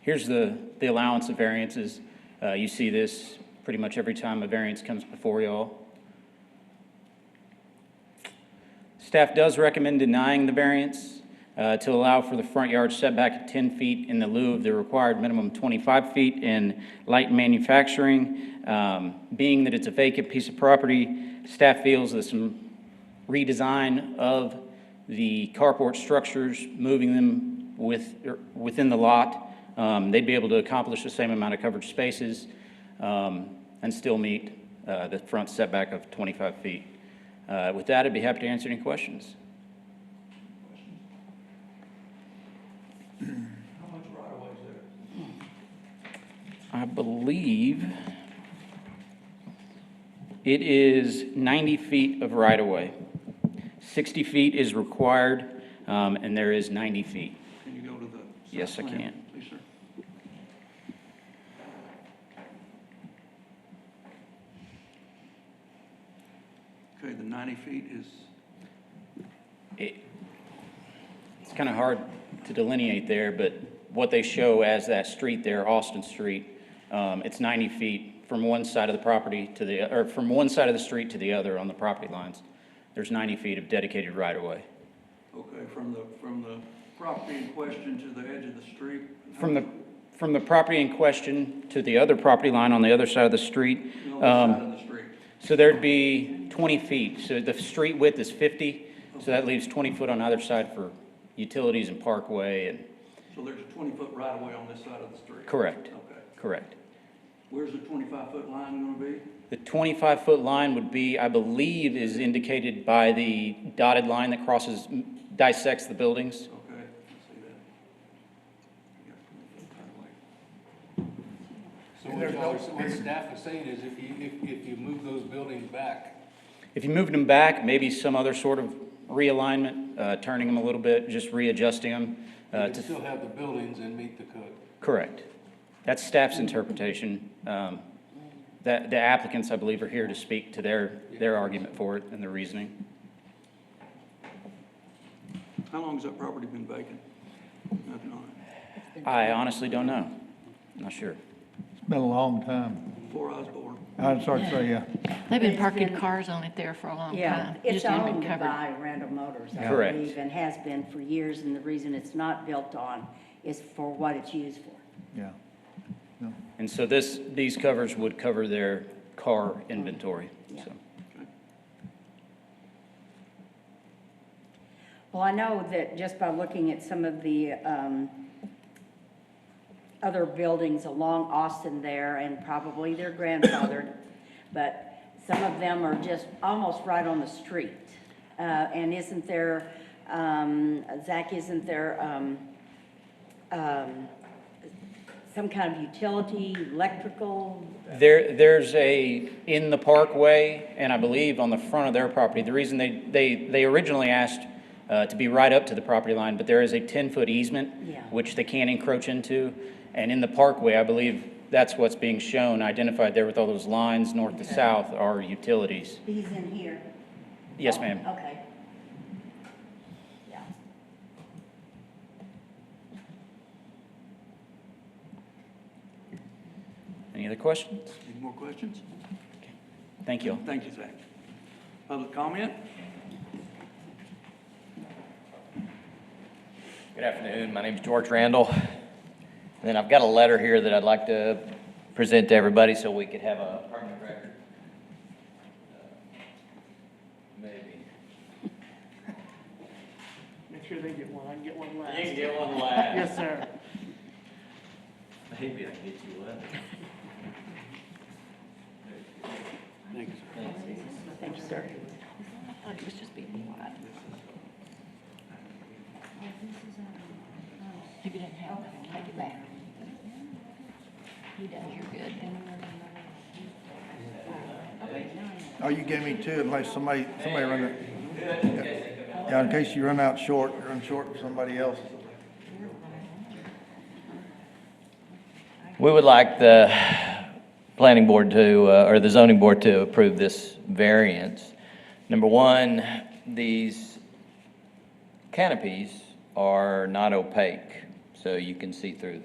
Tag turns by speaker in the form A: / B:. A: Here's the, the allowance of variances. Uh, you see this pretty much every time a variance comes before y'all. Staff does recommend denying the variance uh, to allow for the front yard setback of 10 feet in the lieu of the required minimum 25 feet in light manufacturing. Um, Being that it's a vacant piece of property, staff feels that some redesign of the carport structures, moving them with, er, within the lot, um, they'd be able to accomplish the same amount of coverage spaces um, and still meet uh, the front setback of 25 feet. Uh, With that, I'd be happy to answer any questions. How much right of there? I believe it is 90 feet of right-of-way. 60 feet is required, um, and there is 90 feet.
B: Can you go to the?
A: Yes,
B: site
A: I
B: plan,
A: can.
B: Please, sir. Okay, the 90 feet is,
A: It- It's kind of hard to delineate there, but what they show as that street there, Austin Street, um, it's 90 feet from one side of the property to the, or from one side of the street to the other on the property lines. There's 90 feet of dedicated right-of-way.
B: okay, from the, from the property in question to the edge of the street?
A: From the, from the property in question to the other property line on the other side of the street,
B: The other
A: um,
B: side of the street.
A: so there'd be 20 feet. So the street width is 50, so that leaves 20 foot on either side for utilities and parkway and,
B: So there's a 20-foot right-of-way on this side of the street?
A: correct,
B: Okay.
A: correct.
B: Where's the 25-foot line going to be?
A: The 25-foot line would be, I believe, is indicated by the dotted line that crosses, dissects the buildings.
B: Okay, I see that. You got 20-foot right-of-way.
C: So what y'all- so what staff is saying is if you, if, if you move those buildings back,
A: If you moved them back, maybe some other sort of realignment, uh, turning them a little bit, just readjusting them.
C: you
A: uh,
C: can
A: to-
C: still have the buildings and meet the code.
A: Correct. That's staff's interpretation. Um, That The applicants, I believe, are here to speak to their, their argument for it and their reasoning.
B: How long has that property been vacant? Nothing on it.
A: I honestly don't know. Not sure.
D: Been a long time.
B: Before I was born.
D: I'd start to say, yeah.
E: They've been
F: It's
E: parking
F: been-
E: cars on it there for a long
F: Yeah,
E: time.
F: it's
E: Just hadn't been
F: owned
E: covered.
F: by Randall Motors, I
A: Correct.
F: believe, and has been for years, and the reason it's not built on is for what it's used for.
D: Yeah. No.
A: And so this, these covers would cover their car inventory,
F: Yeah.
A: so.
F: Well, I know that just by looking at some of the um, other buildings along Austin there, and probably they're grandfathered, but some of them are just almost right on the street. Uh, And isn't there, um, Zach, isn't there um, um, some kind of utility, electrical?
A: There, there's a, in the parkway, and I believe on the front of their property, the reason they, they, they originally asked uh, to be right up to the property line, but there is a 10-foot easement,
F: Yeah.
A: which they can't encroach into, and in the parkway, I believe that's what's being shown, identified there with all those lines, north to south, are utilities.
F: He's in here.
A: Yes,
G: Oh,
A: ma'am.
F: Okay. Yeah.
A: Any other questions?
B: Any more questions?
A: Thank you all.
B: Thank you, Zach. Public comment?
H: Good afternoon, my name's George Randall. And then I've got a letter here that I'd like to present to everybody so we could have a permanent record. Maybe.
G: Make sure they get one, I can get one
H: You can
G: last.
H: get one last.
G: Yes, sir.
H: Maybe I can get you one.
F: Thank you, sir.
E: It was Oh, just being quiet. If you didn't have it, take it back. You done, you're good.
D: Oh, you gave me two unless somebody, somebody run it. Yeah, in case you run out short, run short with somebody else.
H: We would like the planning board to, uh, or the zoning board to approve this variance. Number one, these canopies are not opaque, so you can see through them.